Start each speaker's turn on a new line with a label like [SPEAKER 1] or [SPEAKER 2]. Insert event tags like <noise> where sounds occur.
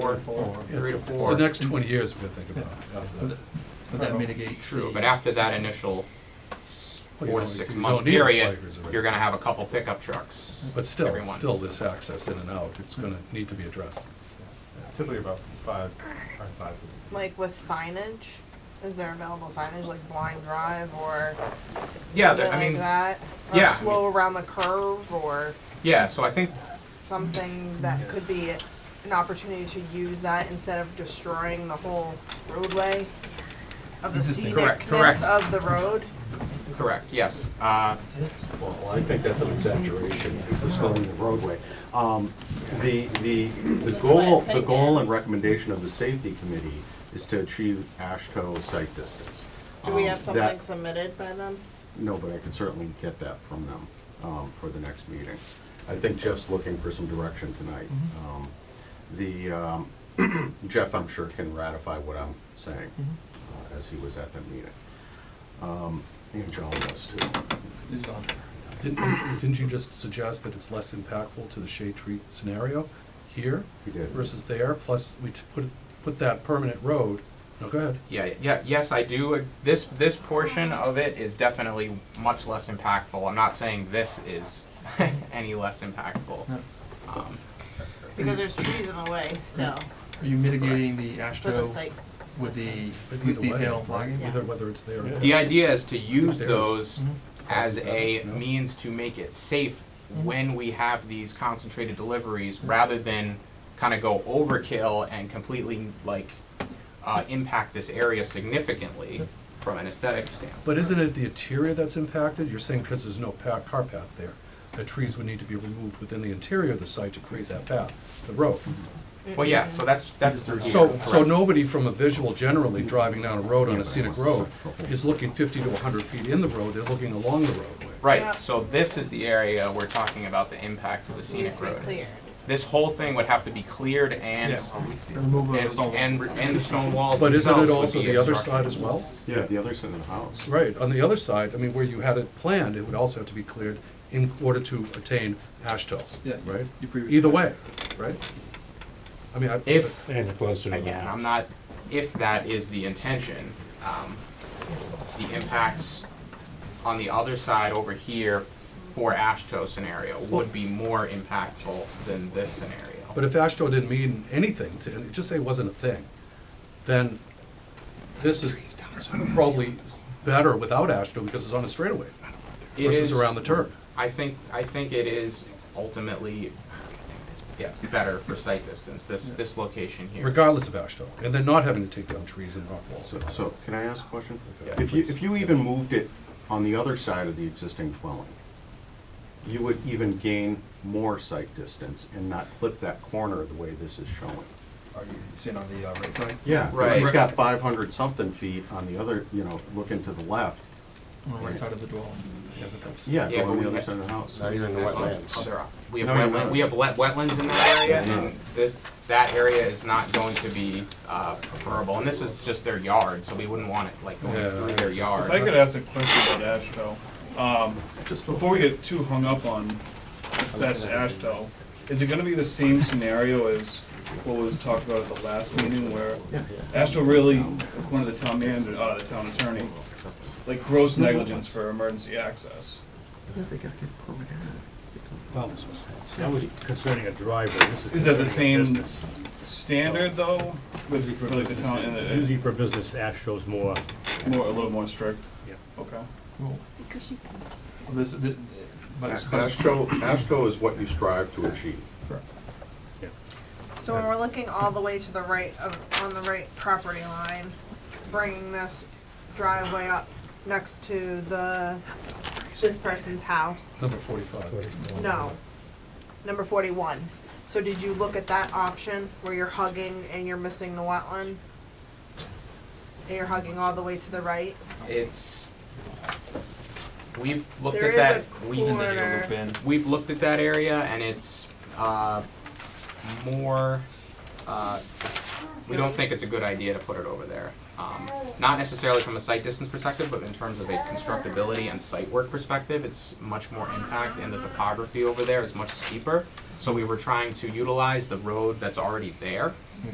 [SPEAKER 1] four,
[SPEAKER 2] Four.
[SPEAKER 1] three to
[SPEAKER 2] It's
[SPEAKER 1] four.
[SPEAKER 2] the next twenty years we gotta think about. after that.
[SPEAKER 3] Would that mitigate?
[SPEAKER 1] True,
[SPEAKER 3] the-
[SPEAKER 1] but after that initial
[SPEAKER 2] Well, you
[SPEAKER 1] four
[SPEAKER 2] don't-
[SPEAKER 1] to six
[SPEAKER 2] you
[SPEAKER 1] month
[SPEAKER 2] don't need the
[SPEAKER 1] period,
[SPEAKER 2] flaggers already.
[SPEAKER 1] you're gonna have a couple pickup trucks.
[SPEAKER 2] But still,
[SPEAKER 1] every month.
[SPEAKER 2] still this access in and out, it's gonna need to be addressed.
[SPEAKER 4] Typically about five, or five.
[SPEAKER 5] like with signage? Is there available signage like blind drive or
[SPEAKER 1] Yeah,
[SPEAKER 5] something
[SPEAKER 1] there- I
[SPEAKER 5] like
[SPEAKER 1] mean,
[SPEAKER 5] that? Or
[SPEAKER 1] yeah.
[SPEAKER 5] slow around the curve or
[SPEAKER 1] yeah, so I think,
[SPEAKER 5] something that could be an opportunity to use that instead of destroying the whole roadway of the
[SPEAKER 3] Existing.
[SPEAKER 1] Correct, correct.
[SPEAKER 5] scenicness of the road?
[SPEAKER 1] correct, yes. Uh,
[SPEAKER 6] Well, I think that's an exaggeration, describing the roadway. Um, The, the, the goal, the goal and recommendation of the safety committee is to achieve ASHTO site distance.
[SPEAKER 5] Do we
[SPEAKER 6] Um,
[SPEAKER 5] have
[SPEAKER 6] that-
[SPEAKER 5] something submitted by them?
[SPEAKER 6] No, but I could certainly get that from them um, for the next meeting. I think Jeff's looking for some direction tonight. Um, The, um, <clears throat> Jeff, I'm sure, can ratify what I'm saying, uh, as he was at that meeting. Um, And John was too.
[SPEAKER 3] Is on there.
[SPEAKER 2] Didn't, didn't you just suggest that it's less impactful to the shade tree scenario here
[SPEAKER 6] He did.
[SPEAKER 2] versus there, plus we t- put, put that permanent road, no, go ahead.
[SPEAKER 1] yeah, yeah, yes, I do, uh, this, this portion of it is definitely much less impactful. I'm not saying this is <laughs> any less impactful.
[SPEAKER 3] No.
[SPEAKER 1] Um,
[SPEAKER 5] Because there's trees in the way still
[SPEAKER 3] Are you mitigating the
[SPEAKER 5] for the
[SPEAKER 3] ASHTO
[SPEAKER 5] site.
[SPEAKER 3] with the
[SPEAKER 2] But
[SPEAKER 3] police
[SPEAKER 2] either way,
[SPEAKER 3] detail and flagging?
[SPEAKER 2] Either whether it's there or
[SPEAKER 4] Yeah.
[SPEAKER 1] The idea is to use
[SPEAKER 2] There's-
[SPEAKER 1] those
[SPEAKER 3] Mhm.
[SPEAKER 1] as a
[SPEAKER 2] No.
[SPEAKER 1] means to make it safe
[SPEAKER 3] Mhm.
[SPEAKER 1] when we have these concentrated deliveries, rather than kind of go overkill and completely like uh, impact this area significantly from an aesthetic standpoint.
[SPEAKER 2] But isn't it the interior that's impacted? You're saying because there's no pa- car path there, the trees would need to be removed within the interior of the site to create that path, the road.
[SPEAKER 1] Well, yeah, so that's, that's through here.
[SPEAKER 2] So, so
[SPEAKER 1] correct.
[SPEAKER 2] nobody from a visual generally driving down a road on a scenic road is looking fifty to hundred feet in the road, they're looking along the roadway.
[SPEAKER 5] Yeah.
[SPEAKER 1] Right, so this is the area we're talking about the impact of the scenic road. is. This whole thing would have be cleared and,
[SPEAKER 3] Yes. The removal of the
[SPEAKER 1] and,
[SPEAKER 3] stone wall.
[SPEAKER 1] and, and the stone walls
[SPEAKER 2] But isn't it
[SPEAKER 1] themselves
[SPEAKER 2] also
[SPEAKER 1] would be
[SPEAKER 2] the other
[SPEAKER 1] obstructed.
[SPEAKER 2] side as well?
[SPEAKER 6] Yeah, the other side of the house.
[SPEAKER 2] Right, on the other side, I mean, where you had it planned, it would also have to be cleared in order to attain ASHTO,
[SPEAKER 3] Yeah, you-
[SPEAKER 2] right?
[SPEAKER 3] you previously-
[SPEAKER 2] Either way, right? I mean, I.
[SPEAKER 1] If,
[SPEAKER 7] And closer to the
[SPEAKER 1] Again,
[SPEAKER 7] house.
[SPEAKER 1] I'm not, if that is the intention, um, the impacts on the other side over here for ASHTO scenario would be more impactful than this
[SPEAKER 2] But
[SPEAKER 1] scenario.
[SPEAKER 2] if ASHTO didn't mean anything to, and just say it wasn't a thing, then this is probably better without ASHTO because it's on a straightaway
[SPEAKER 1] It
[SPEAKER 2] versus
[SPEAKER 1] is-
[SPEAKER 2] around the turn.
[SPEAKER 1] I think, I think it is ultimately, yes, better for sight distance, this, this location here.
[SPEAKER 2] regardless of ASHTO, and then not having to take down trees and rock walls.
[SPEAKER 6] So, so can I ask a question?
[SPEAKER 1] Yeah,
[SPEAKER 6] If you,
[SPEAKER 2] please.
[SPEAKER 6] if you even moved it on the other side of the existing dwelling, you would even gain more sight distance and not clip that corner the way this is showing.
[SPEAKER 3] Are you sitting on the uh, right side?
[SPEAKER 6] Yeah, because
[SPEAKER 1] Right.
[SPEAKER 6] he's got five hundred something feet on the other, you know, looking to the left.
[SPEAKER 3] On the right side of the dwelling.
[SPEAKER 2] Yeah, but that's-
[SPEAKER 6] Yeah,
[SPEAKER 1] Yeah,
[SPEAKER 6] go on
[SPEAKER 1] but
[SPEAKER 6] the
[SPEAKER 1] we
[SPEAKER 6] other
[SPEAKER 1] ha-
[SPEAKER 6] side of the house.
[SPEAKER 7] Now you're in the
[SPEAKER 1] There's
[SPEAKER 7] wetlands.
[SPEAKER 1] other op- We have
[SPEAKER 6] No, you're
[SPEAKER 1] wetland,
[SPEAKER 6] not.
[SPEAKER 1] we have wet, wetlands in that area,
[SPEAKER 6] You're
[SPEAKER 1] and this, that area is not going to be, uh, preferable, and this is just their yard, so we wouldn't want it, like, going
[SPEAKER 2] Yeah.
[SPEAKER 1] through their yard.
[SPEAKER 8] If I could ask a question about ASHTO, um, before we get too hung up on if that's ASHTO, is it gonna be the same scenario as what was talked about at the last meeting where ASHTO really, one of the town manager, uh, the town attorney, like gross negligence for emergency access?
[SPEAKER 7] Well, That was concerning a driveway, this is.
[SPEAKER 8] Is that the
[SPEAKER 7] concerning a
[SPEAKER 8] same-
[SPEAKER 7] business.
[SPEAKER 8] Standard though, with, for like the town, and
[SPEAKER 7] Usually for business, Astro's more,
[SPEAKER 8] it- more, a little more strict?
[SPEAKER 7] Yeah.
[SPEAKER 8] Okay.
[SPEAKER 3] Well,
[SPEAKER 5] Because you can see.
[SPEAKER 3] This, thi- but it's- but it's-
[SPEAKER 6] ASHTO, ASHTO is what you strive to achieve.
[SPEAKER 7] yeah.
[SPEAKER 5] So when we're looking all the way to the right of, on the right property line, bringing this driveway up next to the, this person's house,
[SPEAKER 2] Number forty-five.
[SPEAKER 5] no, number forty-one. So did you look at that option where you're hugging and you're missing the wetland? And you're hugging all the way to the right?
[SPEAKER 1] It's, we've looked
[SPEAKER 5] There
[SPEAKER 1] at
[SPEAKER 5] is
[SPEAKER 1] that,
[SPEAKER 5] a
[SPEAKER 1] we,
[SPEAKER 5] corner.
[SPEAKER 3] Ben,
[SPEAKER 1] we've looked at that area and it's, uh, more, uh, we don't
[SPEAKER 5] Really?
[SPEAKER 1] think it's a good idea to put it over there. Um, not necessarily from a site distance perspective, but in terms of a constructability and site work perspective, it's much more impact and the topography over there is much steeper. So we were trying to utilize the road that's already there